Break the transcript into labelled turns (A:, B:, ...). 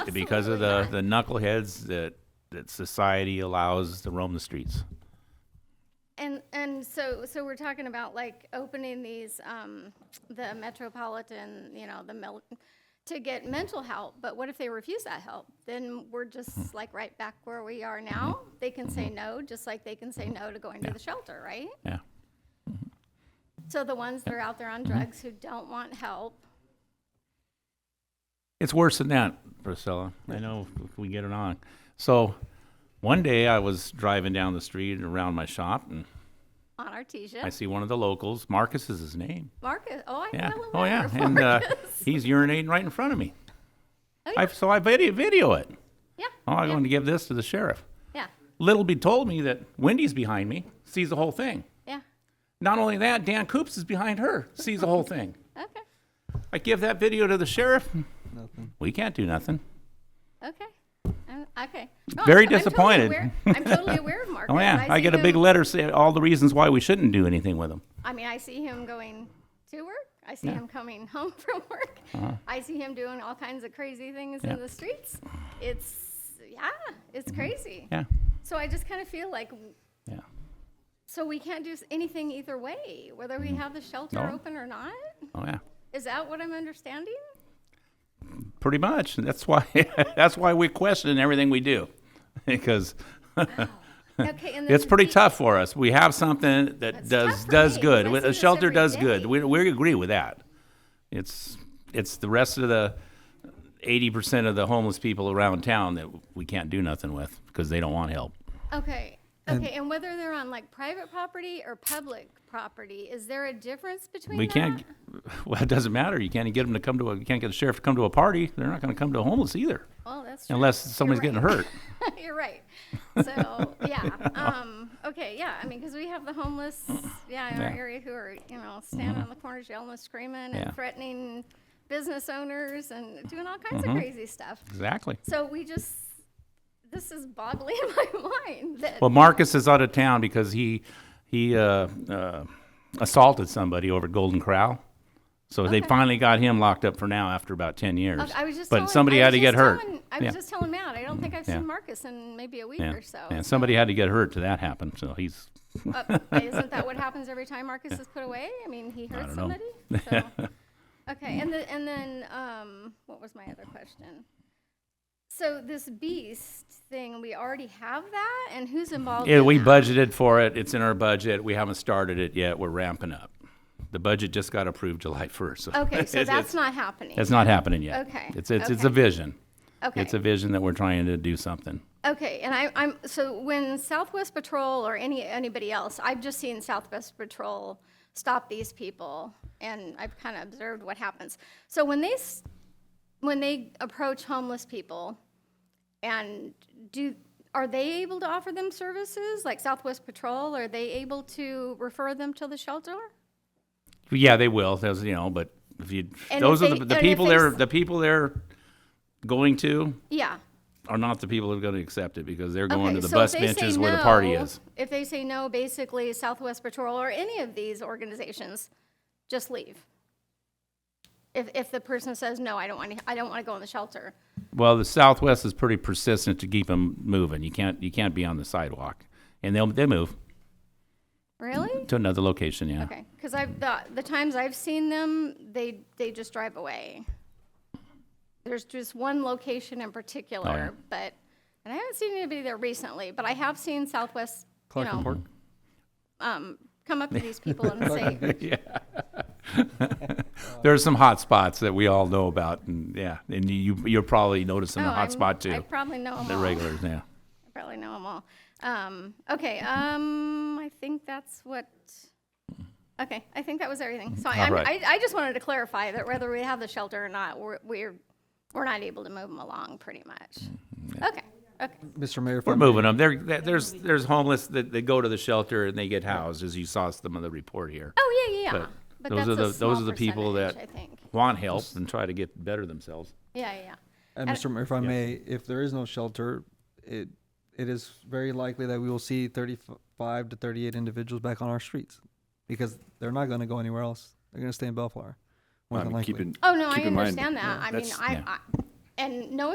A: because of the,
B: Absolutely
A: the knuckleheads that, that society allows to roam the streets.
B: And and so so we're talking about like opening these um, the metropolitan, you know, the mil- to get mental help. But what if they refuse that help? Then we're
A: Mm-hmm.
B: just like right back where we are now. They can say no, just like they can say no to going to the shelter, right?
A: Yeah.
B: So the ones that are out there on
A: Mm-hmm.
B: drugs who don't want help,
A: It's worse than that, Priscilla. I know if we get it on. So one day I was driving down the street and around my shop and
B: on Artesia,
A: I see one of the locals. Marcus is his name.
B: Marcus. Oh, I
A: Yeah.
B: know him.
A: Oh, yeah.
B: better,
A: And uh,
B: Marcus.
A: he's urinating right in front of me.
B: Oh,
A: I, so I video, video it.
B: yeah.
A: Oh, I'm
B: yeah,
A: going to give this to the sheriff.
B: yeah,
A: Little be told me that Wendy's behind me, sees the whole thing.
B: yeah.
A: Not only that, Dan Coops is behind her, sees the whole thing.
B: Okay.
A: I give that video to the sheriff. We can't do nothing.
B: Okay. Um, okay.
A: Very
B: No, I'm- I'm totally
A: disappointed.
B: aware- I'm totally aware of Marcus.
A: Oh yeah, I
B: see
A: get a big
B: him-
A: letter saying all the reasons why we shouldn't do anything with them.
B: I mean, I see him going to work. I see him coming home from work. I see him doing all kinds of crazy things
A: Uh-huh. Yeah. Mm-hmm.
B: in the streets. It's yeah, it's crazy.
A: Yeah,
B: So I just kind of feel like
A: yeah.
B: so we can't do s- anything either way, whether we have the shelter
A: Mm-hmm. No.
B: open or not.
A: Oh yeah,
B: Is that what I'm understanding?
A: pretty much. That's why. that's why we question everything we do, because
B: Okay, and
A: it's
B: then
A: pretty
B: we-
A: tough for us. We have something that
B: It's
A: does
B: tough for
A: does
B: me,
A: good.
B: 'cause I see
A: A
B: this
A: shelter
B: every
A: does good.
B: day.
A: We we agree with that. It's it's the rest of the eighty percent of the homeless people around town that we can't do nothing with because they don't want help.
B: Okay. Okay, and whether they're on like private property or public property, is there a difference between
A: We
B: that?
A: can't. Well, it doesn't matter. You can't get them to come to a. You can't get the sheriff to come to a party. They're not going to come to a homeless either,
B: Well, that's true.
A: unless somebody's
B: right.
A: getting hurt.
B: You're right. So, yeah, um, okay, yeah, I mean, because we have the homeless, yeah, in our
A: Yeah. Mm-hmm.
B: area who are, you know, standing on the corners yelling and screaming
A: Yeah.
B: and threatening business owners and doing all kinds
A: Mm-hmm.
B: of crazy stuff.
A: Exactly.
B: So we just, this is boggling my mind that,
A: Well, Marcus is out of town because he he uh, uh, assaulted somebody over at Golden Corral. So they
B: Okay.
A: finally got him locked up for now after about ten years.
B: I was just
A: but
B: telling.
A: somebody
B: I
A: had
B: was
A: to get
B: just
A: hurt.
B: telling- I
A: Yeah.
B: was just telling Matt, I don't think I've
A: Yeah.
B: seen Marcus in maybe a week
A: yeah.
B: or so.
A: And somebody had to get hurt to that happen. So he's
B: Uh, Isn't that what happens every time Marcus is put away? I mean, he hurts
A: don't know.
B: somebody? So- Okay, and the, and then, um, what was my other question? So this beast thing, we already have that, and who's involved
A: Yeah,
B: in
A: we
B: that?
A: budgeted for it. It's in our budget. We haven't started it yet. We're ramping up. The budget just got approved July first.
B: Okay, so
A: it's,
B: that's not happening.
A: it's not happening yet.
B: Okay,
A: It's it's, it's a
B: okay.
A: vision.
B: Okay,
A: It's a vision that we're trying to do something.
B: okay, and I, I'm, so when Southwest Patrol or any, anybody else, I've just seen Southwest Patrol stop these people, and I've kind of observed what happens. So when they, s- when they approach homeless people, And do, are they able to offer them services, like Southwest Patrol? Are they able to refer them to the shelter?
A: Yeah, they will. Those you know, but if you
B: And
A: those
B: if
A: are
B: they-
A: the, the
B: and if
A: people
B: they
A: they're
B: s-
A: the people they're going to
B: Yeah.
A: are not the people that are going to accept it because they're going
B: Okay,
A: to the
B: so
A: bus
B: if they say
A: benches where the party
B: no-
A: is.
B: If they say no, basically Southwest Patrol or any of these organizations, just leave. If, if the person says, no, I don't want to, I don't want to go in the shelter.
A: Well, the Southwest is pretty persistent to keep them moving. You can't you can't be on the sidewalk, and they'll they move
B: Really?
A: to another location. Yeah.
B: Okay, because I've, the, the times I've seen them, they, they just drive away. There's just one location in
A: Oh,
B: particular, but, and I haven't seen anybody there recently, but I have seen Southwest, you
C: Clark and Park.
B: know, um, come up to these people and say,
A: There are some hot spots that we all know about, and yeah, and you you're probably noticing
B: oh,
A: the hot
B: I'm-
A: spot
B: I
A: too.
B: probably know them
A: The
B: all.
A: regulars, yeah.
B: I probably know them all. Um, okay, um, I think that's what, okay, I think that was everything. So I,
A: All right.
B: I, I just wanted to clarify that whether we have the shelter or not, we're, we're, we're not able to move them along pretty much.
A: Mm,
B: Okay, okay,
C: Mr. Mayor, if I
A: We're
C: may-
A: moving them. There, there- there's there's homeless that they go to the shelter and they get housed, as you saw some of the report here.
B: oh, yeah, yeah, yeah.
A: But
B: But
A: those
B: that's
A: are
B: a
A: the
B: small
A: those are the people that
B: percentage, I think,
A: want help and try to get better themselves.
B: yeah, yeah, yeah.
C: And
B: And-
C: Mr. uh, Mayor, if I may, if there is no shelter, it, it is very likely that we will see thirty-five to thirty-eight individuals back on our streets because they're not gonna go anywhere else. They're gonna stay in Bellflower, more
D: I
C: than
D: mean,
C: likely.
D: keep in-
B: Oh, no, I
D: keep in mind-
B: understand that. I mean,
D: that's-
B: I,
A: yeah.
B: I, and no